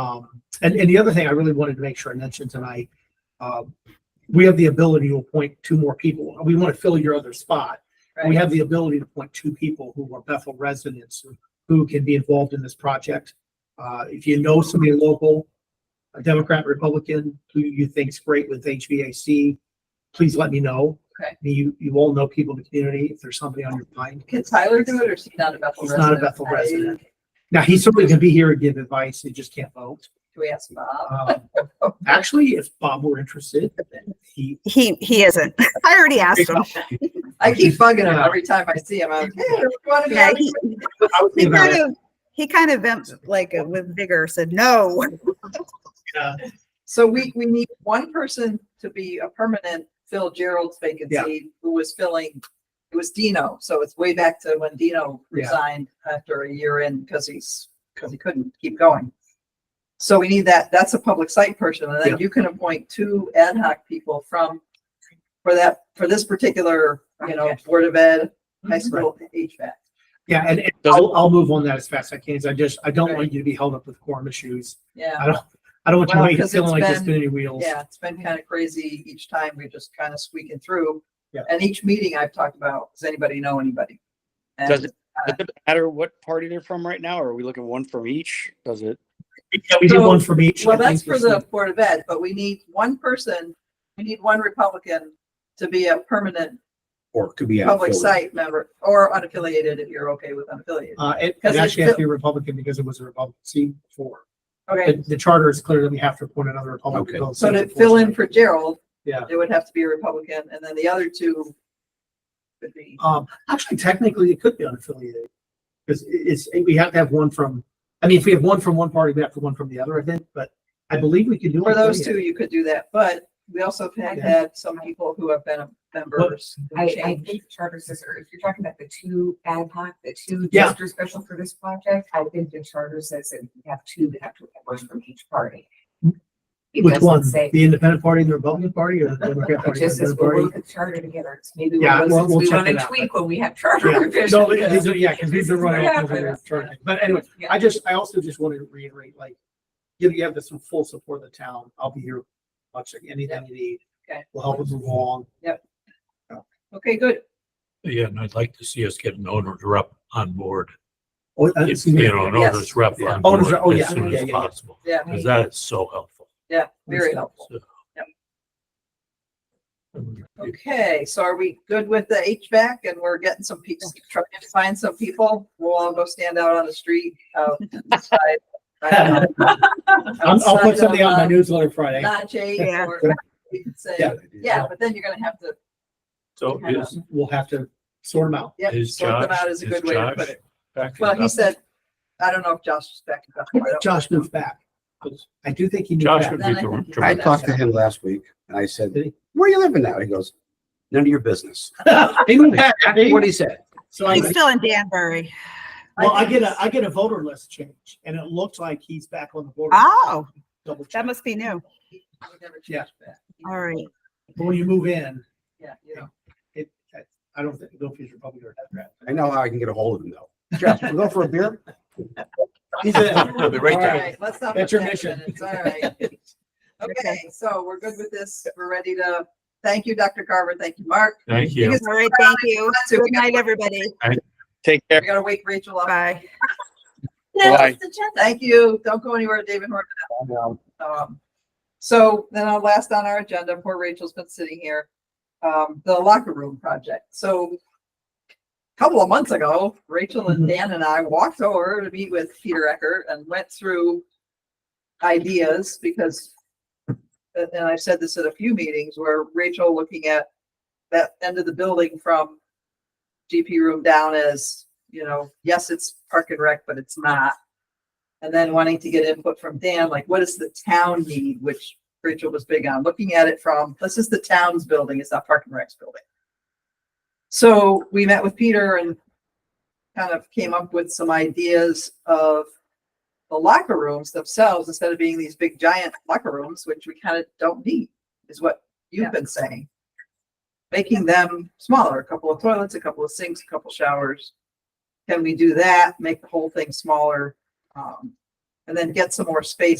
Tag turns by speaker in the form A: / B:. A: Um, and, and the other thing I really wanted to make sure I mentioned tonight, uh, we have the ability to appoint two more people. We want to fill your other spot. We
B: Right.
A: have the ability to appoint two people who are Bethel residents who- who can be involved in this project. Uh, if you know somebody local, a Democrat, Republican, who you think's great with HVAC, please let me know.
B: Okay.
A: You, you all know people in the community. If there's somebody on your mind,
B: Can Tyler do it or is he not a Bethel
A: He's
B: resident?
A: not a Bethel
B: I-
A: resident. Now, he certainly can be here and give advice. He just can't vote.
B: Do we ask Bob?
A: Um, Actually, if Bob were interested, he,
C: He he isn't. I already asked him.
B: I keep bugging him
A: Yeah.
B: every time I see him. I'm like, hey, you wanna be
C: Yeah,
B: on
C: he,
B: the-
A: I would
C: he
A: think about
C: kind
A: it,
C: of he kind of vamped like uh, with vigor said no.
A: uh,
B: So we, we need one person to be a permanent fill Gerald's vacancy, who was filling, it was Dino. So it's way back to when Dino
A: Yeah.
B: resigned after a year in because he's, because he couldn't keep going. So we need that, that's a public site person. And
A: Yeah.
B: then you can appoint two ad hoc people from, for that, for this particular, you know, Board of Ed, high
A: Mm-hmm.
B: school HVAC.
A: Yeah, and and
D: Does it-
A: I'll, I'll move on that as fast as I can. 'cause I just, I don't want you to be held up with quorum issues.
B: Yeah,
A: I don't, I don't want you
B: Well,
A: waiting
B: 'cause
A: feeling
B: it's
A: like you're
B: been-
A: spinning your wheels.
B: yeah, it's been kind of crazy each time. We're just kind of squeaking through.
A: Yeah.
B: And each meeting I've talked about, does anybody know anybody?
D: Does
B: And
D: it Does it matter what party they're from right now? Or are we looking one from each? Does it?
A: Yeah, we did
B: So-
A: one for each. I
B: Well,
A: think
B: that's for
A: this
B: the
A: one.
B: Board of Ed, but we need one person, we need one Republican to be a permanent
E: Or it could be.
B: public
E: outfilled.
B: site member or unaffiliated, if you're okay with unaffiliated.
A: Uh, it,
B: Because
A: it
B: it's
A: actually has
B: still-
A: to be a Republican because it was a Republican seat before. The,
B: Okay,
A: the charter is clear that we have to appoint another Republican.
E: Okay.
A: fill the
B: so
A: seat,
B: to fill in
A: unfortunately.
B: for Gerald,
A: Yeah.
B: it would have to be a Republican, and then the other two could be,
A: Um, actually, technically, it could be unaffiliated. Because it's, we have to have one from, I mean, if we have one from one party, we have to one from the other, I think, but I believe we could do.
B: for those
A: unaffiliated.
B: two, you could do that, but we also have
A: Yeah.
B: had some people who have been members. who
F: I, I
B: changed.
F: think charter says, or if you're talking about the two ad hoc, the two
A: Yeah.
F: just are special for this project, I think the charter says that we have two that have to work from each party. It
A: Which
F: doesn't
A: one?
F: say-
A: The Independent Party and the Republican Party or the Democrat
F: It
A: Party? and
F: just
A: the
F: says
A: Independent
F: we'll
A: Party?
F: look at charter together. It's maybe
A: Yeah,
F: one of
A: we'll-
F: those
A: we'll
F: things we
A: check
F: want
A: it
F: to
A: out.
F: tweak when we have charter
A: Yeah.
F: revision.
A: No, these are, yeah, because these are
F: This is what
A: running off over
F: happens.
A: charging. But anyway,
F: Yeah.
A: I just, I also just wanted to reiterate, like, you you have this in full support of the town. I'll be here watching anything you need.
B: Okay.
A: Will help us move along.
B: Okay, good.
G: Yeah, and I'd like to see us get an owner's rep on board,
A: Oh, uh,
G: If, you know, an
B: Yes.
G: owner's rep
A: Yeah.
G: on
A: Owner's
G: board
A: rep, oh, yeah,
G: as soon
A: yeah, yeah,
G: as
A: yeah.
G: possible,
B: Yeah,
G: because that is so helpful.
B: yeah, very helpful.
G: So-
B: Yep. Okay, so are we good with the HVAC and we're getting some people, trying to find some people? We'll all go stand out on the street outside.
A: I'm- I'll, I'll put something out in my newsletter Friday.
B: Not Jay
C: Yeah.
B: or we can say,
A: Yeah.
B: yeah, but then you're gonna have to,
G: So is,
A: We'll have to sort them out.
B: yeah,
G: is
B: sort them
G: Josh,
B: out is a
G: is
B: good way to put
G: Josh
B: it.
G: back?
B: Well,
G: in
B: he
G: Bethel?
B: said, I don't know if Josh is back. in Bethel. I don't-
A: Josh moved back. I do think he moved
G: Josh
A: back.
G: would
B: Then
G: be
B: I think
G: ter-
B: he
E: I
B: did.
G: terrific.
E: talked to him last week and I said, where are you living now? He goes, none of your business.
A: He moved back.
E: What he said.
A: So I,
C: He's still in Danbury.
A: well, I
B: think
A: get a,
B: it's-
A: I get a voter list change and it looks like he's back on the board.
C: Oh,
A: Double check.
C: that must be new.
B: he never
A: Yeah.
B: changed back.
C: All right.
A: But When you move in,
B: Yeah, you know.
A: it, I don't think, don't he's Republican or Democrat.
E: I know how I can get a hold of him though. Jeff, we'll go for a beer?
A: He's a-
G: He'll be right
B: All
G: there.
B: right, Let's not.
A: That's
B: put
A: your
B: that
A: mission.
B: in. It's all right. Okay, so we're good with this. We're ready to, thank you, Dr. Carver. Thank you, Mark.
G: Thank
C: All
G: you.
C: right. Thank you. Good night, everybody.
D: Take care.
B: We gotta wake Rachel up.
C: Bye.
D: Bye.
B: Thank you. Don't go anywhere, David Horn. Um, so then our last on our agenda, poor Rachel's been sitting here, um, the locker room project. So a couple of months ago, Rachel and Dan and I walked over to meet with Peter Eckert and went through ideas because and and I've said this at a few meetings where Rachel looking at that end of the building from GP room down as, you know, yes, it's park and rec, but it's not. And then wanting to get input from Dan, like what does the town need, which Rachel was big on, looking at it from, this is the town's building, it's not Park and Rec's building. So we met with Peter and kind of came up with some ideas of the locker rooms themselves, instead of being these big giant locker rooms, which we kind of don't need, is what you've been saying. Making them smaller, a couple of toilets, a couple of sinks, a couple showers. Can we do that? Make the whole thing smaller? Um, and then get some more space